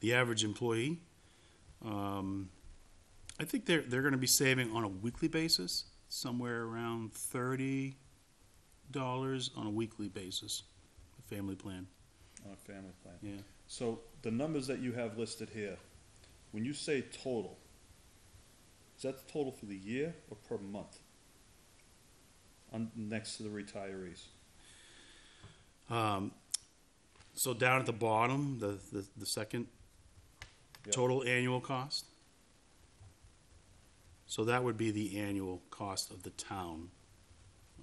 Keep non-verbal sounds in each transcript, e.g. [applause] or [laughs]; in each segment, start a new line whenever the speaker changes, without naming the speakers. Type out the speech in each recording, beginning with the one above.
the average employee. Um, I think they're, they're gonna be saving on a weekly basis, somewhere around thirty dollars on a weekly basis, the family plan,
on a family plan.
yeah.
So the numbers that you have listed here, when you say total, is that the total for the year or per month? On, next to the retirees,
Um, so down at the bottom, the, the, the second
Yep.
total annual cost. So that would be the annual cost of the town,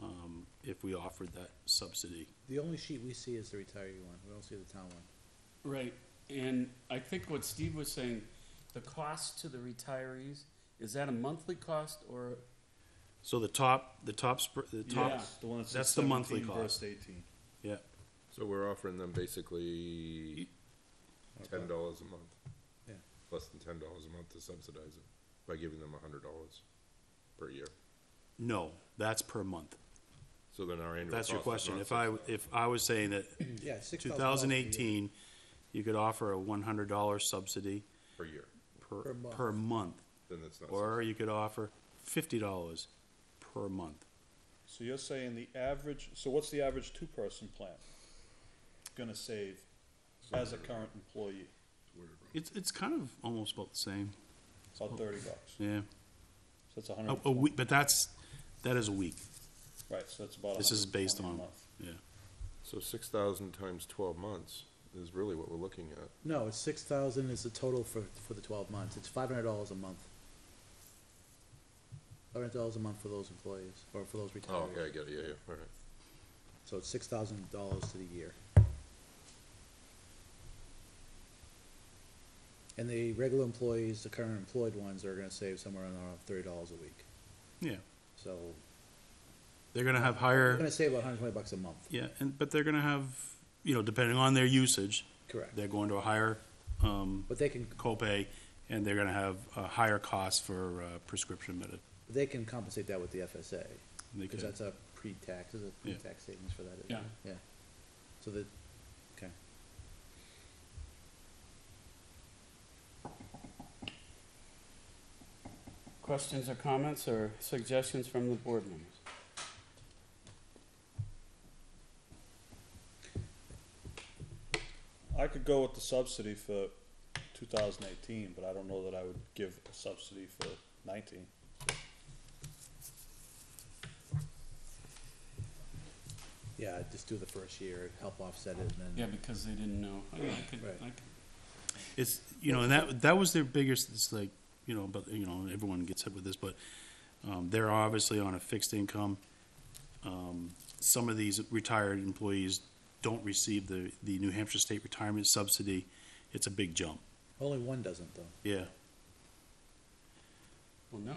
um, if we offered that subsidy.
The only sheet we see is the retiree one, we don't see the town one.
Right, and I think what Steve was saying, the cost to the retirees, is that a monthly cost or,
So the top, the top, spr- the top,
Yeah.
That's the one that's
That's the monthly
seventeen
cost.
versus eighteen.
yeah,
So we're offering them basically ten dollars a month.
Yeah.
Less than ten dollars a month to subsidize it by giving them a hundred dollars per year.
no, that's per month.
So then our annual.
That's your
cost
question.
is not
If I,
$6,000.
if I was saying that
Yeah, six
two
thousand dollars.
thousand eighteen, you could offer a one hundred dollar subsidy
Per year,
per,
Per month.
per month.
then it's not.
Or you could offer fifty dollars per month.
So you're saying the average, so what's the average two-person plan gonna save as a current employee?
It's, it's kind of almost about the same,
It's
Oh.
About thirty bucks, so
yeah.
that's a
A,
hundred,
a week, but that's, that is a week,
right, so that's about a
Oh. This is
hundred and
based
twenty a
on-
month.
yeah.
So six thousand times twelve months is really what we're looking at.
No, it's six thousand is the total for, for the twelve months, it's five hundred dollars a month. Five hundred dollars a month for those employees, or for those
Oh, yeah, I
retirees,
get it, yeah, yeah, all right.
so it's six thousand dollars to the year. And the regular employees, the current employed ones, are gonna save somewhere around thirty dollars a week,
Yeah,
so,
they're gonna have
they're
higher,
gonna save about hundred and twenty bucks a month,
yeah, and, but they're gonna have, you know, depending on their usage,
correct,
they're going to a higher, um,
but they can
copay, and they're gonna have a higher cost for, uh, prescription medi-
They can compensate that with the FSA,
they
because
could-
that's a pre-tax, is a pre-tax savings for that, isn't it? Yeah. So that, okay.
questions or comments or suggestions from the board members?
I could go with the subsidy for two thousand eighteen, but I don't know that I would give a subsidy for nineteen.
Yeah, just do the first year, help offset it, and
Yeah,
then,
because they didn't know. I mean, I could,
Right.
I could,
It's, you know, and that, that was their biggest, it's like, you know, but, you know, everyone gets hit with this, but, um, they're obviously on a fixed income. Um, some of these retired employees don't receive the, the New Hampshire State Retirement Subsidy. It's a big jump,
only one doesn't though,
yeah.
well, no,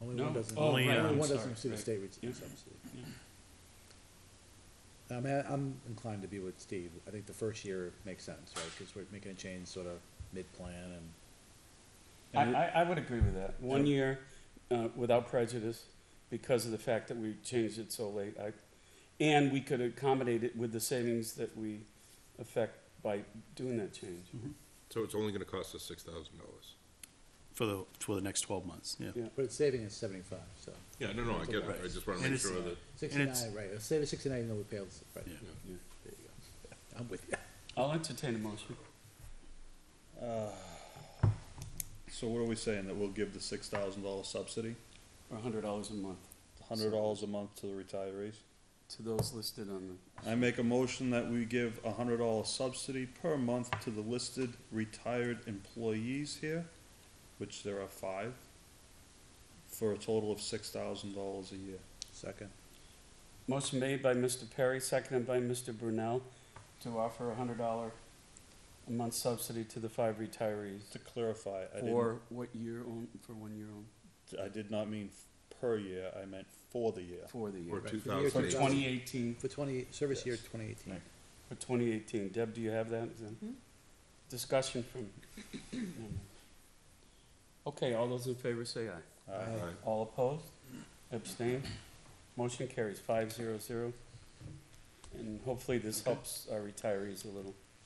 only
No.
one doesn't.
Oh,
Only, right, uh,
Only
I'm
one
sorry,
doesn't receive a
right.
state re-
Yeah.
subsidy. Um,
Yeah.
I mean, I- I'm inclined to be with Steve, I think the first year makes sense, right, because we're making a change sort of mid-plan and.
I,
And
I, I would agree with that. One year, uh, without prejudice, because of the fact that we changed it so late. I, and we could accommodate it with the savings that we affect by doing that change.
So it's only gonna cost us six thousand dollars.
For the, for the next twelve months, yeah.
Yeah.
But it's saving us seventy-five, so,
Yeah, no, no, I get it, I just wanna
And it's-
make sure that,
it's-
sixty-nine, right, It'll save us sixty-nine, even though we pay, all this- right,
Yeah.
Yeah.
there you go, I'm with you. [laughs]
I'll entertain a motion.
So what are we saying, that we'll give the six thousand dollar subsidy,
Or hundred dollars a month
hundred dollars a month to the retirees?
to those listed on
I make a motion that we give a hundred dollar subsidy per month to the listed retired employees here, which there are five, for a total of six thousand dollars a year.
Second.
the. Motion made by Mr. Perry, seconded by Mr. Brunel, to offer a hundred dollar a month subsidy to the five retirees.
To clarify, I didn't,
For what year on, for one year on,
I did not mean per year, I meant for the year.
for the year.
or
Right,
two
for the year
For
thousand
2000.
eight,
twenty eighteen,
For twenty, service year
Yes.
twenty eighteen.
for twenty eighteen. Deb, do you have that? Is that- Discussion from. Okay, all those in favor say aye.
Aye.
Aye.
All opposed? Abstained? Motion carries five zero zero. And hopefully this helps our retirees a little.